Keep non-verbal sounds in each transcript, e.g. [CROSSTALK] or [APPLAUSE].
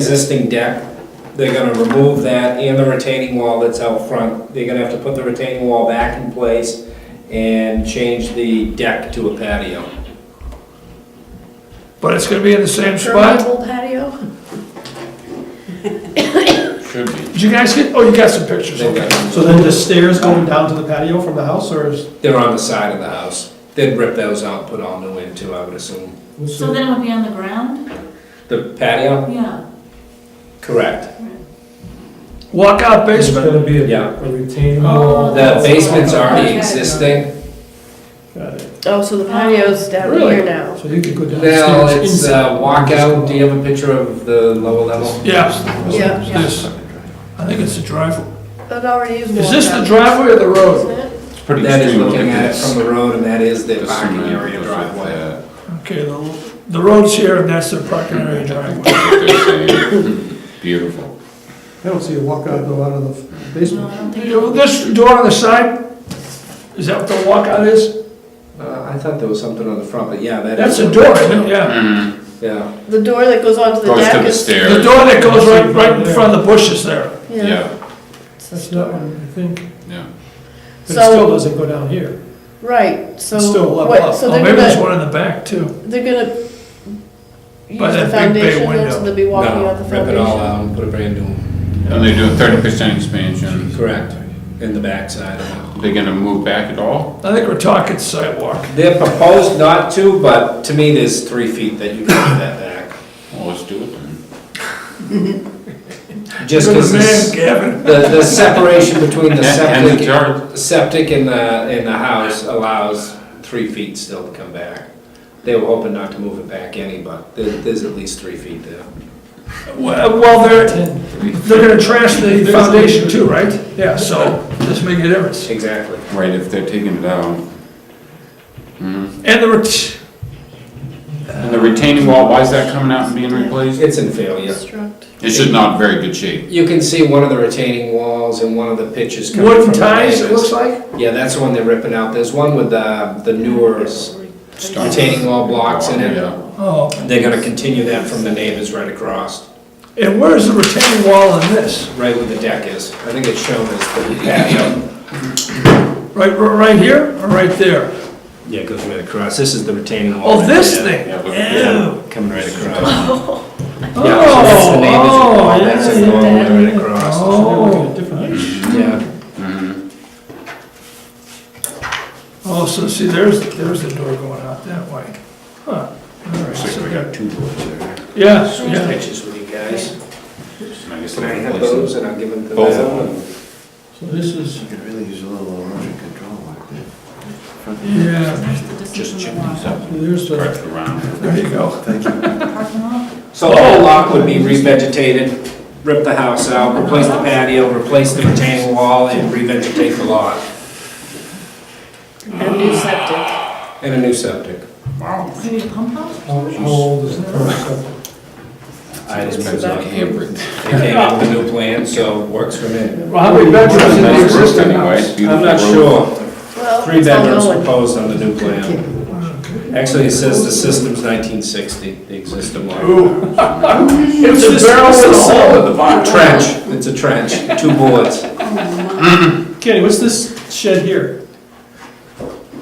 existing deck, they're gonna remove that and the retaining wall that's out front. They're gonna have to put the retaining wall back in place and change the deck to a patio. But it's gonna be in the same spot? Permeable patio? Should be. Did you guys get, oh, you got some pictures, okay. So then the stairs going down to the patio from the house, or is? They're on the side of the house. They'd rip those out, put all new in too, I would assume. So then it would be on the ground? The Oh. patio? Yeah. Correct. Walkout basement? gonna be Yeah. retaining wall. The basement's already existing. Oh, so the patio's down Really? here now. So you could go Now, downstairs. it's uh, walkout. Do you have a picture of the lower level? Yeah, Yeah, this, I think it's the driveway. that already is. Is this the walkout, driveway or the road? isn't it? It's pretty That is extreme. Look looking at it this. from the road and that is the This parking cement area goes driveway. with uh, Okay, the, the road's here and that's the parking area driveway. that. They're saying, Beautiful. I don't see a walkout go out of the No, basement. I don't think. You know, This door on the side, is that what the walkout is? Uh, I thought there was something on the front, but yeah, that That's is. a door, isn't it? Yeah. Mm, Yeah, The door that goes onto Oh, the Goes to deck the is. The stairs. door that goes right, right in front of the bushes there. Yeah, That's that one, I think. yeah. But it still So, doesn't go down here. right, so. It's still level what- up. So Oh, they're maybe there's gonna, one in the back too. they're gonna use By the that big bay foundation, then, window. so they'll be walking no, on the rip it all foundation. out and put a brand new one. And they're doing thirty percent expansion. Correct, in the backside of it. They're gonna move back at all? I think we're talking sidewalk. They're proposed not to, but to me, there's three feet that you can put that Well, let's do it then. back. Just Look at because the man, the, Gavin. the separation between [LAUGHS] the And and the septic, yard. septic and the, and the house allows three feet still to come back. They were hoping not to move it back any, but there, there's at least three feet there. Well, well, they're, they're gonna trash the foundation too, right? Yeah, so, this make a difference. Exactly. Right, if they're taking it out. Mhm. And the, ret- And the retaining wall, why is that coming out and being replaced? It's in failure. Construct. It's just not very good shape. You can see one of the retaining walls and one of the pitches coming from. wooden the ties, it neighbors. looks like? Yeah, that's the one they're ripping out. There's one with the, the newer s- retaining wall blocks in it. Yeah. Oh, They're gonna continue that from the neighbors right across, and where's the retaining wall in this? right where the deck is. I think it's shown as the patio. Right, right here or right there? Yeah, it goes right across. This is the retaining wall. Oh, right this there. thing? yeah, but- Ew. Coming right across. [LAUGHS] Oh, Yeah, so that's the neighbors' wall. That's oh, yeah, it yeah. going right across. Oh, Yeah, Mhm. oh, so see, there's, there's the door going out that way. Huh. All right, Looks so- like we got two doors there. Yeah, Just yeah. pictures with you guys. And I guess Can I they're have replacing those and I'll give them to Both of them? So this is, You could really use a little erosion control like that. Front- yeah, There's the distance Just from check the these water. out. There's the, Correct around. there you go. Thank you. Parking lot. [LAUGHS] So the whole lot would be revegetated, rip the house out, replace the patio, replace the retaining wall and revegetate the lot. And new septic. And a new septic. Wow. Maybe a pump house? how how old is the current septic? I just It's about- Hammered. [LAUGHS] They came up with a new plan, so works for me. Well, how many bedrooms in the Nice roof existing anyway, house? it's I'm beautiful not roof. sure. Well, Three it's all bedrooms going. proposed on the new plan. Actually, it says the system's 1960, the existing one. Ooh. It's a barrel [LAUGHS] It's with a hole in the bottom. Trench, it's a trench, two boards. Kenny, what's this shed here?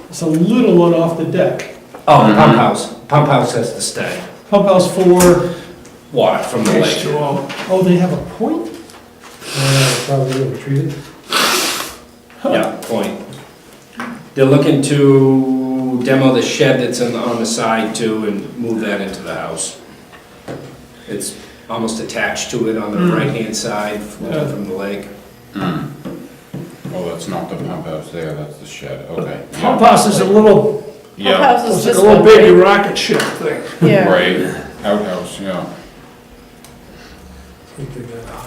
It's a little one off the deck. Oh, the pump house, pump house has to stay. Pump house for, Water from the Next lake. to all. oh, they have a point? Uh, Probably overtreated. Yeah, point. They're looking to demo the shed that's in, on the side too and move that into the house. It's almost attached to it on the right-hand side Hmm. Yeah. from the lake. Oh, that's not the pump house there, that's the shed, okay. Pump house is a little, Pump Yeah, house it's is like this a little one, baby right? rocket ship thing. Yeah. right, outhouse, yeah.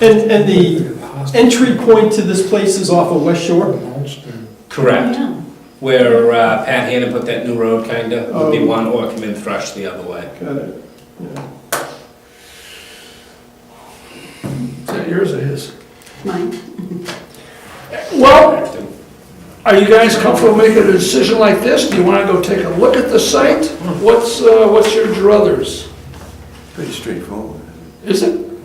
And, and the entry point to this place is off of West Shore? Correct. Yeah. Where uh, Pat Hannon put that new road kinda, would be Oh. one or come in thrush the other way. Got it. Yeah. Is that yours or his? Mine. Well, Oh. are you guys comfortable making a decision like this? Do you wanna go take a look at the Mm. site? What's, uh, what's your druthers? Pretty straightforward. Is it?